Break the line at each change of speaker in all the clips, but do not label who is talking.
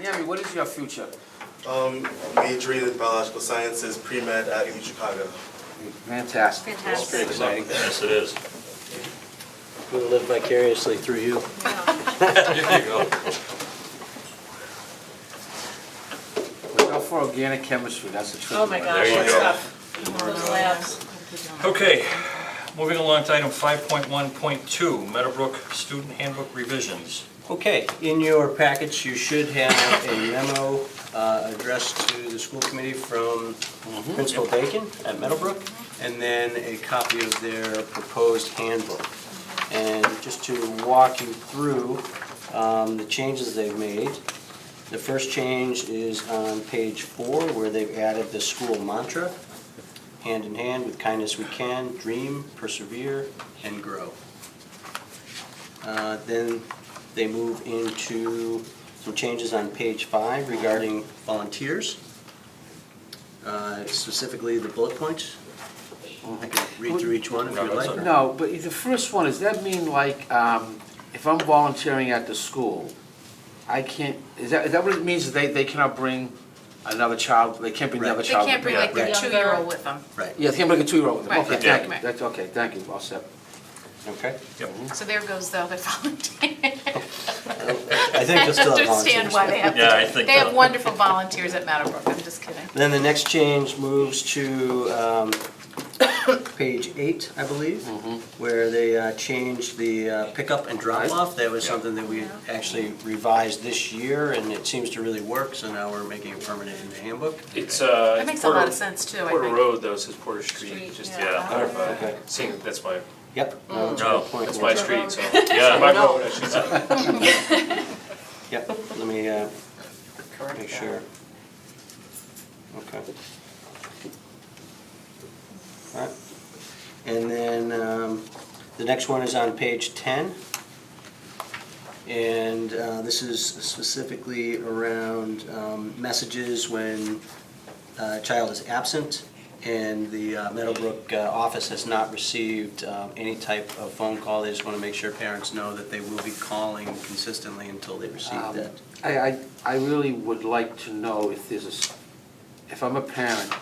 Nyami, what is your future?
Um, majoring in biological sciences, pre-med at U Chicago.
Fantastic.
Fantastic.
Very exciting.
Yes, it is.
We'll live vicariously through you.
There you go.
Look out for organic chemistry, that's the truth.
Oh, my gosh,
There you
that's
go.
tough. Those labs.
Okay, moving along to item 5.1.2, Meadowbrook Student Handbook Revisions.
Okay, in your package, you should have a memo uh, addressed to the school committee from Principal Bacon at Meadowbrook, and then a copy of their proposed handbook. And just to walk you through um, the changes they've made, the first change is on page four, where they've added the school mantra, hand in hand with kindness we can, dream, persevere, and grow. Uh, Then they move into some changes on page five regarding volunteers, uh, specifically the bullet points. I can read through each one if you'd like.
No, but the first one, does that mean like, um, if I'm volunteering at the school, I can't, is that, is that what it means, they, they cannot bring another child, they can't bring the other
They
child?
can't bring like their
Yeah.
two-year-old with them.
Right,
Yeah, they can't bring a two-year-old with them,
Right,
okay,
yeah.
thank you,
Right.
that's, okay, thank you, all set.
okay.
Yep.
So there goes the other volunteer.
I think
I
you'll still have
understand
volunteers.
why they have,
Yeah, I think
they have
that-
wonderful volunteers at Meadowbrook, I'm just kidding.
Then the next change moves to um, page eight, I believe,
Mm-hmm.
where they uh, changed the uh, pickup and drop-off. That was something that we actually revised this year, and it seems to really work, so now we're making it permanent in the handbook.
It's, uh.
That
it's
makes a lot
Porter-
of sense too, I
Porter
think.
Road though, says Porter Street,
Street,
just
yeah.
to
Yeah.
clarify.
Okay.
Seeing that that's my,
Yep. no, that's a
No,
good point.
that's my street, so.
Yeah.
My road, I should say.
Yep, let me uh,
Correct
make
that.
sure. Okay. All right. And then um, the next one is on page 10. And uh, this is specifically around um, messages when uh, a child is absent and the uh, Meadowbrook uh, office has not received um, any type of phone call. They just want to make sure parents know that they will be calling consistently until they receive
Um,
that.
I, I, I really would like to know if there's a, s- if I'm a parent,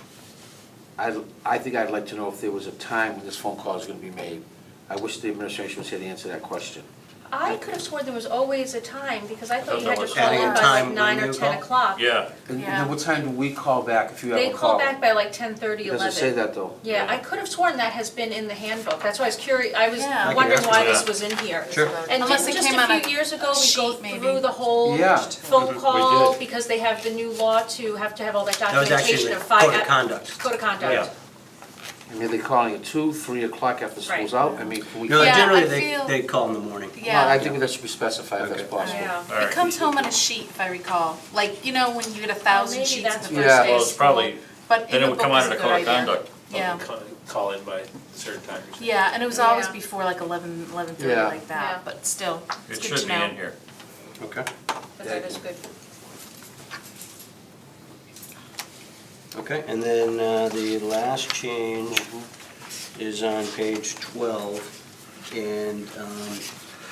I, I think I'd like to know if there was a time when this phone call is gonna be made. I wish the administration was here to answer that question.
I could have sworn there was always a time, because I thought you had to call
Adding a
in by
time
like
when
nine
you
or ten
call?
o'clock.
Yeah,
And and
Yeah.
then what time do we call back if you have a
They
call?
call back by like ten thirty,
It
eleven.
doesn't say that though.
Yeah, I could have sworn that has been in the handbook, that's why I was curious, I was
Yeah. I can
wondering
ask
why
them.
this was in here.
Sure.
And
Unless it
didn't just
came on
a
a
few years ago, we go
sheet, maybe.
through the whole
Yeah.
phone call,
did.
because they have the new law to have to have all that
That was actually
documentation
the
of five.
code of conduct.
Code of
Yeah.
conduct.
I mean, they're calling at two, three o'clock after school's
Right.
out, I mean, can we?
No,
Yeah,
generally,
I
they,
feel-
they call in the morning.
Well, I
Yeah,
think that should be specified if that's
Okay.
possible.
Yeah.
all
it
right.
comes home on a sheet, if I recall, like, you know, when you get a thousand
maybe
sheets in the
that's
first
it
day
what
is.
of
Well, it's
school,
probably-
But in
Then
the
it would
book
come out
is
in
a
a
good
code of
idea.
conduct.
Yeah,
Call- Call in by a certain time or something.
yeah, and it was always
Yeah.
before like eleven, eleven-thirty
Yeah.
like
Yeah.
that, but still, it's
It
good to
should be
know.
in here.
Okay.
But that is good.
Okay, and then uh, the last change is on page 12. And um,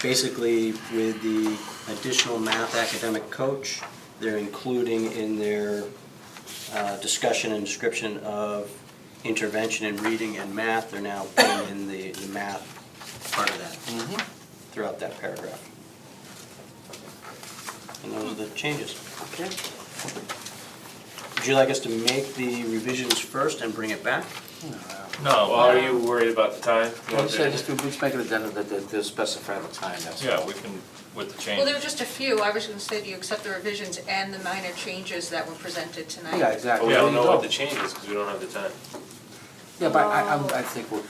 basically, with the additional math academic coach, they're including in their uh, discussion and description of intervention in reading and math, they're now putting in the the math part of that throughout that paragraph. And those are the changes.
Okay.
Would you like us to make the revisions first and bring it back?
No,
Well,
well,
are you worried about the time?
Well, I said, just, just make an addendum that they- they'll specify the time, that's all.
yeah, we can, with the
Well, there were
change.
just a few, I was gonna say, do you accept the revisions and the minor changes that were presented tonight?
Yeah,
But
exactly.
Oh, we
There
don't
you
know what
go.
the change is, because we don't have the time.
Yeah, but I, I'm,
Oh.
I think we're,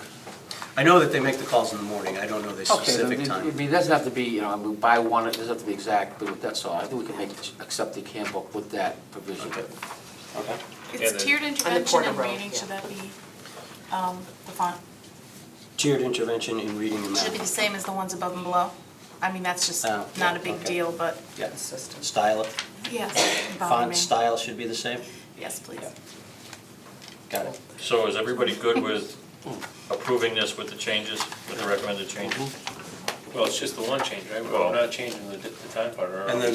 I know that they make the calls in the morning, I don't know the
Okay, then
specific
it- I
time.
mean, it doesn't have to be, you know, I mean, buy one, it doesn't have to be exact, but that's all. I think we can make, accept the handbook with that provision.
Okay. Okay.
And
It's
the-
tiered intervention
Porter
and
Road,
reading,
yeah.
should that be, um, the font,
Tiered intervention in reading and
should it be the
math.
same as the ones above and below? I mean, that's just
Oh, yeah,
not a big
okay.
deal, but,
Yeah.
System.
Style, it.
yes, it doesn't bother
font
me.
style should be the same?
Yes, please.
Yeah. Got it.
So is everybody good with approving this with the changes, with the recommended changes?
Well, it's just the one change, right? We're
Well-
not changing the, the time part, or are
And
we?
then